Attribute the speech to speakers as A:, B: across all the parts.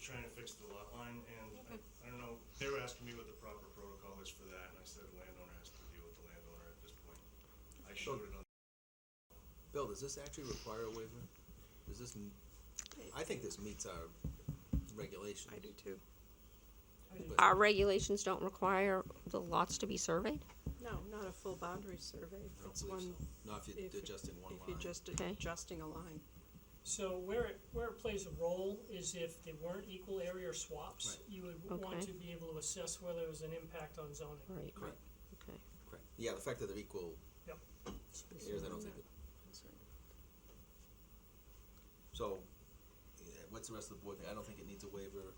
A: trying to fix the lot line, and I, I don't know, they were asking me what the proper protocol is for that, and I said the landowner has to deal with the landowner at this point. I showed it on,
B: Bill, does this actually require a waiver? Does this, m- I think this meets our regulations.
C: I do too.
D: Our regulations don't require the lots to be surveyed?
C: No, not a full boundary survey.
B: I don't
C: It's
B: believe
C: one.
B: so. Not if
C: if
B: you're
C: you-
B: adjusting one
C: If
B: line.
C: you're just
D: Okay.
C: adjusting a line.
E: So where it, where it plays a role is if they weren't equal area swaps, you would want
D: Okay.
E: to be able to assess whether there was an impact on zoning.
D: Right,
B: Correct,
D: okay.
B: correct. Yeah, the fact that they're equal
E: Yep.
B: areas, I don't think it. So, yeah, what's the rest of the board think? I don't think it needs a waiver.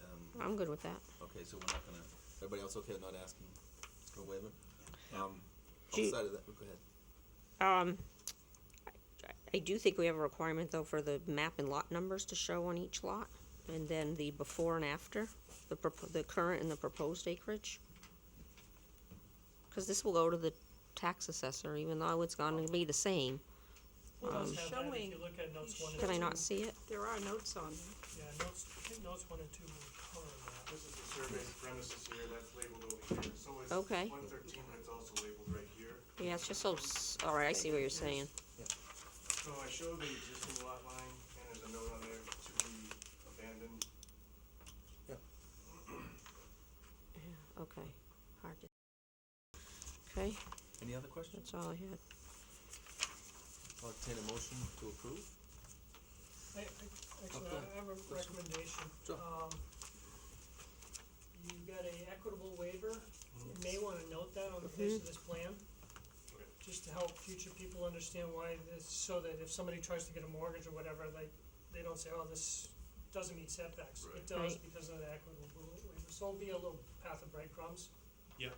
B: Um,
D: I'm good with that.
B: okay, so we're not gonna, everybody else okay with not asking for a waiver? Um,
D: Do you-
B: outside of that, go ahead.
D: Um, I do think we have a requirement though for the map and lot numbers to show on each lot, and then the before and after, the propo- the current and the proposed acreage. Cause this will go to the tax assessor, even though it's gonna be the same.
E: It does have that if
C: Um, Showing-
E: you look at notes one and two.
D: Can I not see it?
C: There are notes on them.
E: Yeah, notes, I think notes one and two will cover that.
A: this is the survey premises here, that's labeled over here, so it's
D: Okay.
A: one thirteen, but it's also labeled right here.
D: Yeah, it's just so, s- all right, I see what you're saying.
A: So I showed the existing lot line, and there's a note on there to be abandoned.
D: Okay, hard to. Okay,
B: Any other questions?
D: that's all I had.
B: I'll entertain a motion to approve.
E: I, I, actually,
B: Okay.
E: I have a recommendation.
B: Sure.
E: Um, you got a equitable waiver, you may wanna note that on the face of this plan.
A: Okay.
E: Just to help future people understand why this, so that if somebody tries to get a mortgage or whatever, they, they don't say, oh, this doesn't meet setbacks.
A: Right.
E: It does
D: Right.
E: because of the equitable waiver, so it'll be a little path of breadcrumbs.
A: Yeah,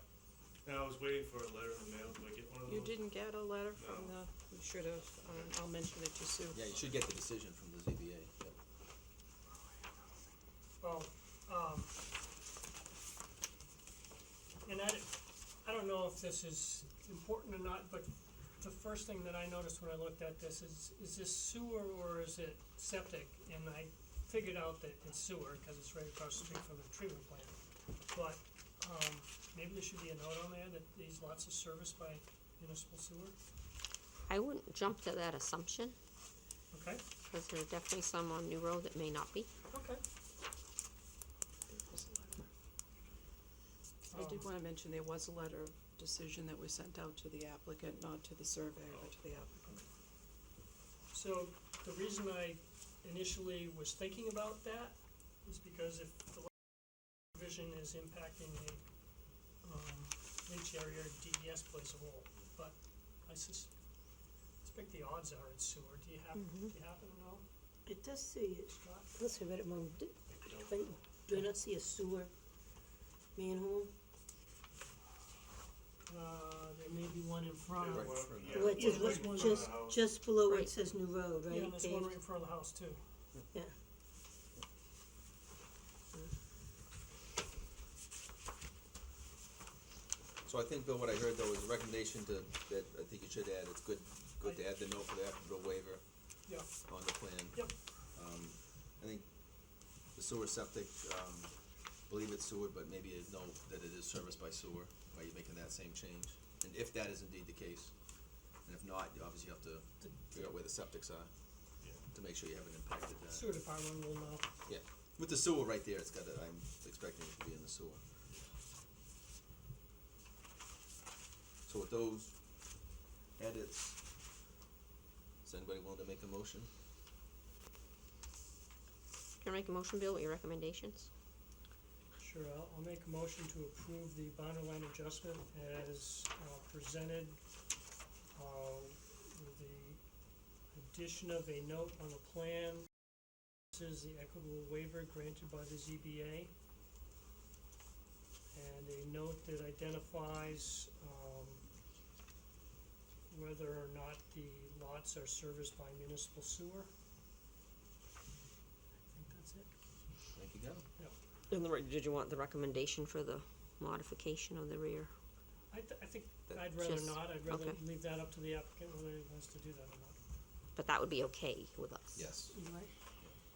A: and I was waiting for a letter in the mail, do I get one of
C: You
A: those?
C: didn't get a letter from
A: Oh. No.
C: the, you should have, um, I'll mention it to Sue.
B: Yeah, you should get the decision from the ZBA, yep.
E: Well, um, and I, I don't know if this is important or not, but the first thing that I noticed when I looked at this is, is this sewer or is it septic? And I figured out that it's sewer, cause it's right across the street from the treatment plant. But, um, maybe there should be a note on there that these lots are serviced by municipal sewer,
D: I wouldn't jump to that assumption,
E: okay?
D: cause there are definitely some on New Road that may not be.
E: Okay.
C: I did wanna mention there was a letter of decision that was sent out to the applicant, not to the surveyor, but to the applicant.
E: So the reason I initially was thinking about that is because if the provision is impacting a, um, leach area, DES plays a role, but I sus- suspect the odds are it's sewer, do you happen, do you happen to know?
F: It does say, it's not, let's have it among, do
A: Uh,
F: do I not see a sewer manhole?
E: Uh, there may be one in front of,
A: Yeah,
B: Right
A: one-
B: from
A: yeah,
F: Well, it
A: there's
F: says,
A: one
F: what's
A: right in front of
F: just,
A: the house.
F: just below where
D: Right.
F: it says new road, right?
E: yeah, and there's one
F: paved?
E: right in front of the house too.
F: Yeah.
B: So I think, Bill, what I heard though is a recommendation to, that I think you should add, it's good, good to add the note for the applicable waiver
E: Yeah,
B: on the plan.
E: yep,
B: I think the sewer septic, um, believe it's sewer, but maybe a note that it is serviced by sewer, Are you making that same change? And if that is indeed the case, and if not, you obviously have to figure out where the septics are,
A: Yeah.
B: to make sure you haven't impacted that.
E: sewer department will know.
B: Yeah, with the sewer right there, it's got to, I'm expecting it to be in the sewer. So with those edits, is anybody willing to make a motion?
D: Can I make a motion, Bill, with your recommendations?
E: Sure, I'll, I'll make a motion to approve the boundary line adjustment as uh, presented, uh, with the addition of a note on the plan. This is the equitable waiver granted by the ZBA. And a note that identifies, um, whether or not the lots are serviced by municipal sewer. I think that's it.
B: Thank you, Gavin.
D: And the, re- did you want the recommendation for the modification of the rear?
E: I, th- I think
B: That-
E: I'd rather
D: Just-
E: not, I'd rather
D: okay.
E: leave that up to the applicant whether he wants to do that or not.
D: But that would be okay with us.
B: Yes.
C: You like?